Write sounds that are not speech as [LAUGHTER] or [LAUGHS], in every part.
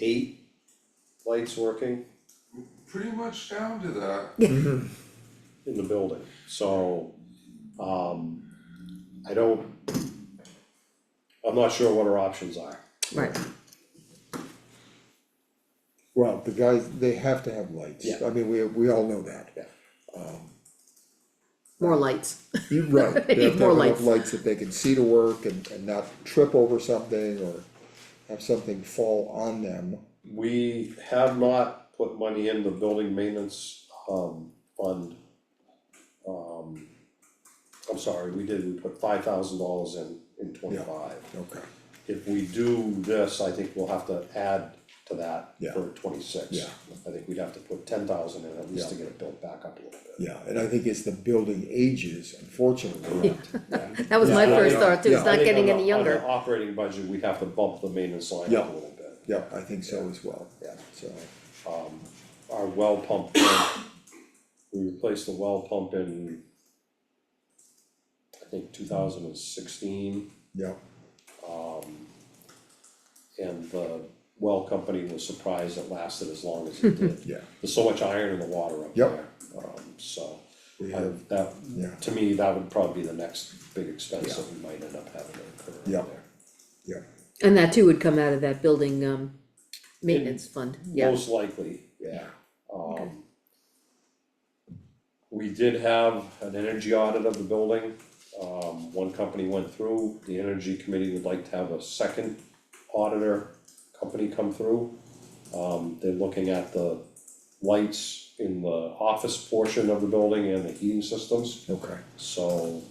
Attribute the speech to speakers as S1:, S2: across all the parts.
S1: eight lights working
S2: pretty much down to that.
S1: in the building, so, um, I don't, I'm not sure what our options are.
S3: Right,
S4: Well, the guys, they have to have lights,
S1: Yeah.
S4: I mean, we, we all know that.
S1: Yeah.
S3: more lights, [LAUGHS]
S4: You're right,
S3: They
S4: they have
S3: need
S4: to have
S3: more lights.
S4: enough lights that they can see to work and, and not trip over something or have something fall on them.
S1: We have not put money in the building maintenance, um, fund. Um, I'm sorry, we did, we put five thousand dollars in, in twenty-five.
S4: Okay.
S1: If we do this, I think we'll have to add to that
S4: Yeah.
S1: for twenty-six.
S4: Yeah.
S1: I think we'd have to put ten thousand in at least to get it built back up a little bit.
S4: Yeah, and I think it's the building ages, unfortunately,
S3: that was my
S1: Yeah,
S3: first
S1: yeah,
S3: thought too,
S4: yeah.
S3: it's
S1: I
S3: not
S1: think on
S3: getting
S1: the-
S3: any
S1: On
S3: younger,
S1: the operating budget, we'd have to bump the maintenance line up a
S4: Yeah.
S1: little bit.
S4: yeah, I think so as well,
S1: Yeah.
S4: so,
S1: Our well pump, uh, we replaced the well pump in I think two thousand and sixteen,
S4: yeah,
S1: and the well company was surprised it lasted as long as it
S4: [LAUGHS]
S1: did.
S4: yeah,
S1: There's so much iron in the water up
S4: Yep.
S1: there, um, so.
S4: We
S1: I-
S4: have-
S1: That,
S4: yeah.
S1: to me, that would probably be the next big expense that we might end up having to incur up there.
S4: Yeah. yeah,
S3: and that too would come out of that building, um, maintenance fund, yeah,
S1: Most likely, yeah,
S4: Yeah.
S1: um. We did have an energy audit of the building, um, one company went through, the energy committee would like to have a second auditor company come through. Um, they're looking at the lights in the office portion of the building and the heating systems,
S4: okay,
S1: so,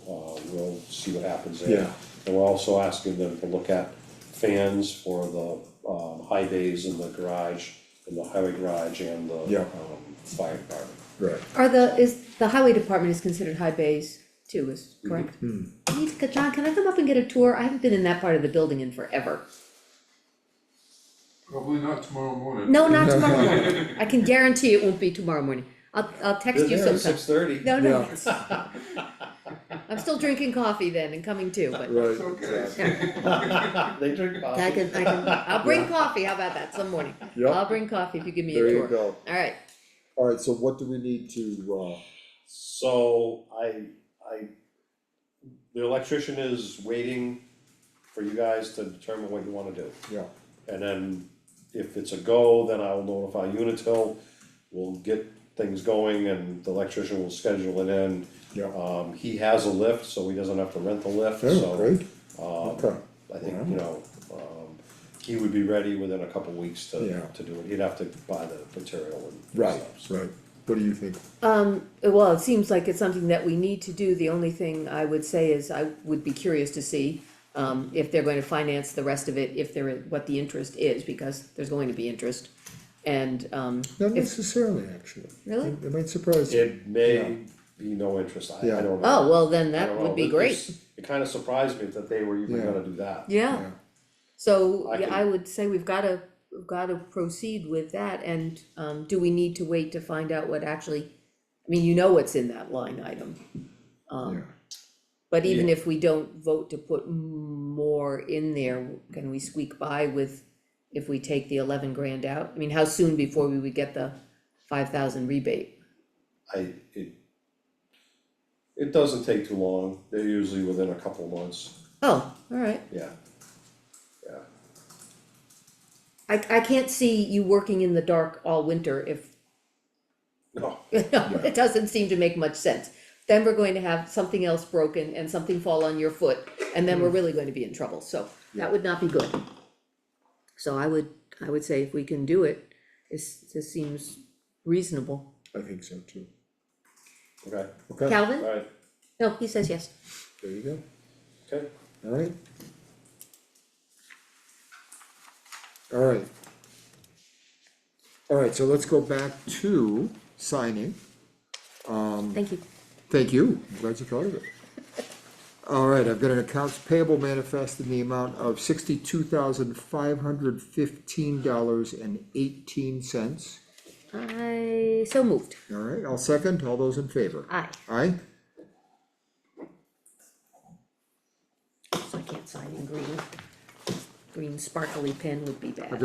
S1: uh, we'll see what happens there.
S4: yeah,
S1: And we're also asking them to look at fans for the um high bays in the garage, in the highway garage and the
S4: Yeah.
S1: um fire department.
S4: right,
S3: are the, is, the highway department is considered high bays too, is correct? I
S4: Mm-hmm.
S3: need to, John, can I come up and get a tour, I haven't been in that part of the building in forever,
S2: Probably not tomorrow morning. [LAUGHS]
S3: no,
S4: [LAUGHS]
S3: not tomorrow morning, I can guarantee it won't be tomorrow morning, I'll, I'll text you sometime.
S1: six thirty.
S3: [LAUGHS] No, no,
S4: Yeah.
S3: it's- I'm still drinking coffee then and coming too, but
S4: right,
S2: It's okay.
S3: yeah,
S1: They drink coffee.
S3: I can, I can, I'll bring coffee, how about that, some morning?
S4: Yeah.
S3: I'll bring coffee if you give me a
S4: there
S3: tour.
S4: you go.
S3: Alright,
S4: Alright, so what do we need to, uh,
S1: So I, I, the electrician is waiting for you guys to determine what you wanna do.
S4: yeah,
S1: And then if it's a go, then I'll notify Unitil, we'll get things going and the electrician will schedule it in.
S4: yeah,
S1: Um, he has a lift, so he doesn't have to rent the lift,
S4: oh,
S1: so,
S4: great,
S1: um,
S4: okay,
S1: I think, you know, um, he would be ready within a couple weeks to,
S4: Yeah.
S1: to do it, he'd have to buy the material and
S4: right,
S1: stuff, so.
S4: right, what do you think?
S3: um, well, it seems like it's something that we need to do, the only thing I would say is I would be curious to see. Um, if they're going to finance the rest of it, if there, what the interest is, because there's going to be interest. And, um,
S4: Not
S3: if,
S4: necessarily, actually.
S3: Really?
S4: It it might surprise you.
S1: It may
S4: Yeah.
S1: be no interest, I, I
S4: Yeah.
S1: don't know.
S3: oh, well, then
S1: I
S3: that
S1: don't know,
S3: would be
S1: but
S3: great,
S1: it's- It kinda surprised me that they were even
S4: Yeah.
S1: gonna do that.
S3: yeah. So,
S1: I
S3: yeah,
S1: can-
S3: I would say we've gotta, we've gotta proceed with that, and, um, do we need to wait to find out what actually, I mean, you know what's in that line item.
S4: Yeah,
S3: Um, but even if we don't vote to put more in there, can we squeak by with, if we take the eleven grand out? I mean, how soon before we would get the five thousand rebate?
S1: I, it, it doesn't take too long, they're usually within a couple months,
S3: Oh, alright,
S1: yeah. Yeah,
S3: I, I can't see you working in the dark all winter if
S1: no,
S3: No, [LAUGHS] it doesn't seem to make much sense. Then we're going to have something else broken and something fall on your foot, and then we're really going to be in trouble, so that would not be good. So I would, I would say if we can do it, this, this seems reasonable.
S4: I think so too.
S1: okay,
S4: Okay,
S3: Calvin?
S1: alright,
S3: No, he says yes.
S4: there you go,
S1: okay.
S4: alright. Alright. Alright, so let's go back to signing.
S3: Thank you.
S4: Thank you, I'm glad you
S3: [LAUGHS]
S4: thought of it. Alright, I've got an accounts payable manifest in the amount of sixty-two thousand five hundred fifteen dollars and eighteen cents.
S3: I, so moved.
S4: Alright, I'll second, all those in favor?
S3: Aye.
S4: Aye?
S3: So I can't sign in green. Green sparkly pen would be bad.